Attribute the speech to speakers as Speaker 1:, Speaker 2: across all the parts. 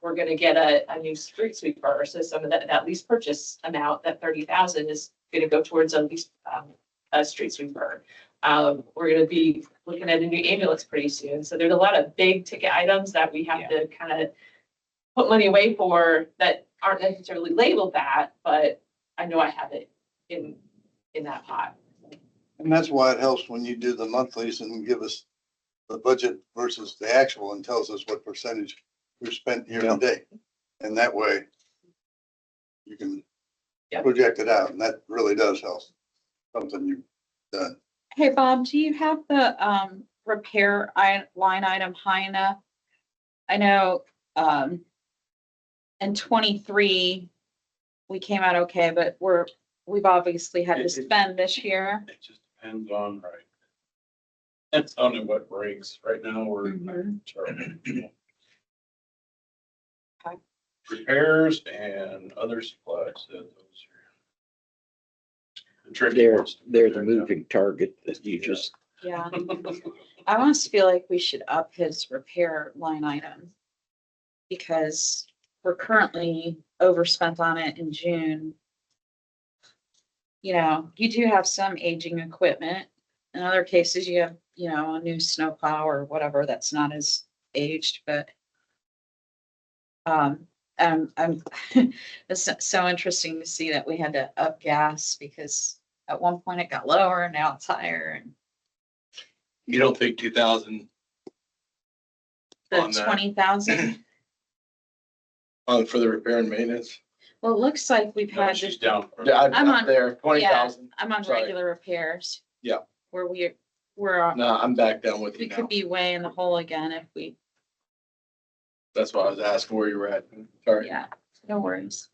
Speaker 1: we're gonna get a, a new street sweeper, so some of that, that lease purchase amount, that thirty thousand is gonna go towards a lease, um, a street sweeper. Um, we're gonna be looking at a new ambulance pretty soon, so there's a lot of big ticket items that we have to kind of put money away for that aren't necessarily labeled that, but I know I have it in, in that pot.
Speaker 2: And that's why it helps when you do the monthlies and give us the budget versus the actual and tells us what percentage we've spent year to date. And that way you can
Speaker 1: Yeah.
Speaker 2: project it out and that really does help. Something you've done.
Speaker 3: Hey, Bob, do you have the, um, repair i- line item high enough? I know, um, in twenty-three, we came out okay, but we're, we've obviously had to
Speaker 4: It- it-
Speaker 3: spend this year.
Speaker 4: It just depends on, right? It's on what breaks. Right now, we're
Speaker 3: Mhm.
Speaker 4: terrible. Repairs and other supplies. that those are the tricky
Speaker 5: They're,
Speaker 4: ones to
Speaker 5: they're the
Speaker 4: figure out.
Speaker 5: moving target that you just,
Speaker 3: Yeah, I almost feel like we should up his repair line item. Because we're currently overspent on it in June. You know, you do have some aging equipment. In other cases, you have, you know, a new snowplow or whatever that's not as aged, but. Um, um, I'm, it's so- so interesting to see that we had to up gas because at one point it got lower and now it's higher and.
Speaker 6: You don't think two thousand
Speaker 3: The
Speaker 6: on that.
Speaker 3: twenty thousand,
Speaker 4: uh,
Speaker 6: on for the repair and maintenance?
Speaker 3: well, it looks like we've
Speaker 4: No,
Speaker 3: had,
Speaker 4: she's
Speaker 3: this-
Speaker 4: down.
Speaker 6: Yeah, I'm
Speaker 3: I'm
Speaker 6: not
Speaker 3: on-
Speaker 6: there, twenty thousand.
Speaker 3: I'm on
Speaker 6: sorry.
Speaker 3: regular repairs.
Speaker 6: Yeah.
Speaker 3: Where we, we're, on-
Speaker 6: No, I'm back down with
Speaker 3: we
Speaker 6: you
Speaker 3: could
Speaker 6: now.
Speaker 3: be way in the hole again if we,
Speaker 6: That's why I was asking where you were at. Sorry.
Speaker 3: yeah, no worries.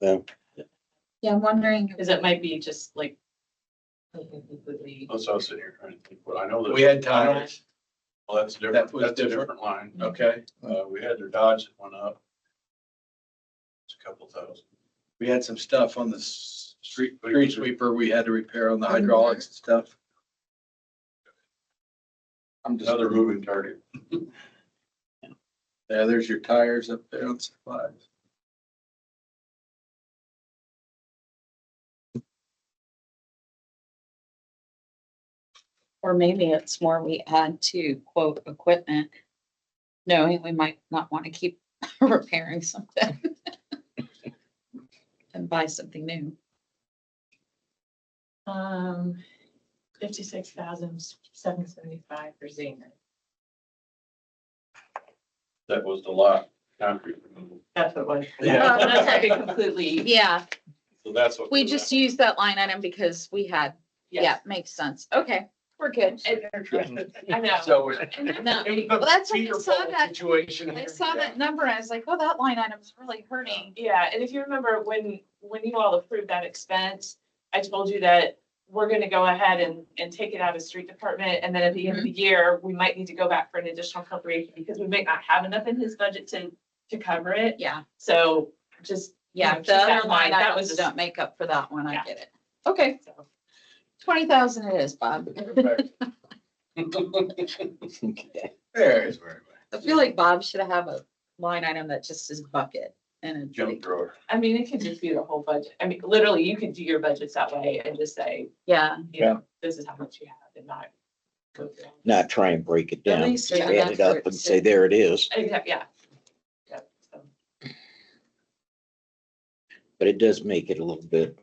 Speaker 5: Yeah.
Speaker 3: Yeah, I'm wondering,
Speaker 1: Cause it might be just like completely
Speaker 4: That's what I was sitting here trying to think. Well, I know that.
Speaker 6: We had
Speaker 4: I know-
Speaker 6: tires.
Speaker 4: Well, that's different.
Speaker 6: That was
Speaker 4: That's a
Speaker 6: different?
Speaker 4: different
Speaker 6: Mm-hmm.
Speaker 4: line.
Speaker 6: Okay.
Speaker 4: Uh, we had their Dodge that went up. It's a couple thousand.
Speaker 6: We had some stuff on the s-
Speaker 4: Street.
Speaker 6: street sweeper. We had to repair on the hydraulics and stuff. I'm just,
Speaker 4: Another moving target.
Speaker 6: yeah, there's your tires up there on supplies.
Speaker 3: or maybe it's more we add to quote equipment. Knowing we might not want to keep repairing something. And buy something new.
Speaker 1: Um, fifty-six thousand, seven seventy-five for Zena.
Speaker 4: That was the lot, concrete removal.
Speaker 1: That's what it was.
Speaker 4: Yeah.
Speaker 1: Oh, That's like a completely,
Speaker 3: Yeah,
Speaker 4: So that's what.
Speaker 3: we
Speaker 4: was
Speaker 3: just used that line item because we had, yeah,
Speaker 1: yes.
Speaker 3: makes sense. Okay, we're good.
Speaker 1: I know.
Speaker 6: So it
Speaker 1: And that's
Speaker 3: No,
Speaker 6: was.
Speaker 3: Well, that's when I saw that,
Speaker 6: Situation.
Speaker 3: I saw that number, and I was like, oh, that line item's really hurting.
Speaker 1: Yeah, and if you remember when, when you all approved that expense, I told you that we're gonna go ahead and, and take it out of street department, and then at the end of the year, we might need to go back for an additional appropriation, because we might not have enough in his budget to, to cover it,
Speaker 3: Yeah,
Speaker 1: so just. you know,
Speaker 3: yeah,
Speaker 1: keep
Speaker 3: the
Speaker 1: that in
Speaker 3: other line
Speaker 1: mind. That was
Speaker 3: items don't make up for that one, I
Speaker 1: Yeah.
Speaker 3: get it. Okay,
Speaker 1: just- so,
Speaker 3: twenty thousand it is, Bob.
Speaker 6: There's where.
Speaker 3: I feel like Bob should have a line item that just is bucket and a
Speaker 4: Jump
Speaker 3: big-
Speaker 4: thrower.
Speaker 1: I mean, it could just be the whole budget, I mean, literally, you could do your budgets that way and just say,
Speaker 3: Yeah,
Speaker 1: you know, this is how much you have and not. go through.
Speaker 5: not try and break it
Speaker 3: at
Speaker 5: down.
Speaker 3: least there's
Speaker 5: Add
Speaker 3: enough
Speaker 5: it
Speaker 3: for
Speaker 5: up
Speaker 3: it
Speaker 5: and say,
Speaker 3: to-
Speaker 5: there it is,
Speaker 1: Exactly, yeah. Yep, so.
Speaker 5: but it does make it a little bit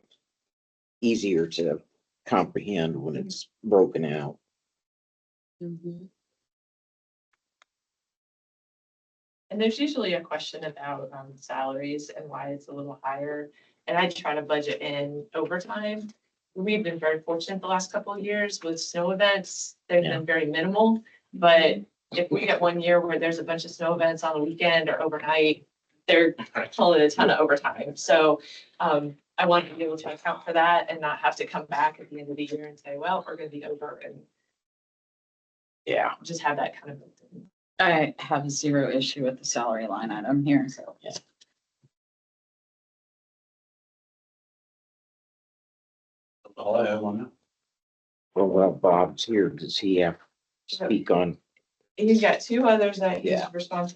Speaker 5: easier to comprehend when
Speaker 3: Mm-hmm.
Speaker 5: it's broken out.
Speaker 3: Mhm.
Speaker 1: And there's usually a question about um salaries and why it's a little higher. And I try to budget in overtime. We've been very fortunate the last couple of years with snow events. They've been very minimal. But if we get one year where there's a bunch of snow events on the weekend or overnight, they're pulling a ton of overtime. So um I want to be able to account for that and not have to come back at the end of the year and say, well, we're gonna be over and
Speaker 5: Yeah.
Speaker 1: just have that kind of.
Speaker 3: I have zero issue with the salary line item here, so.
Speaker 5: Yeah.
Speaker 4: That's All I have on that.
Speaker 5: Well, while Bob's here, does he have to speak on
Speaker 1: He's got two others that he's
Speaker 5: Yeah.
Speaker 1: responsible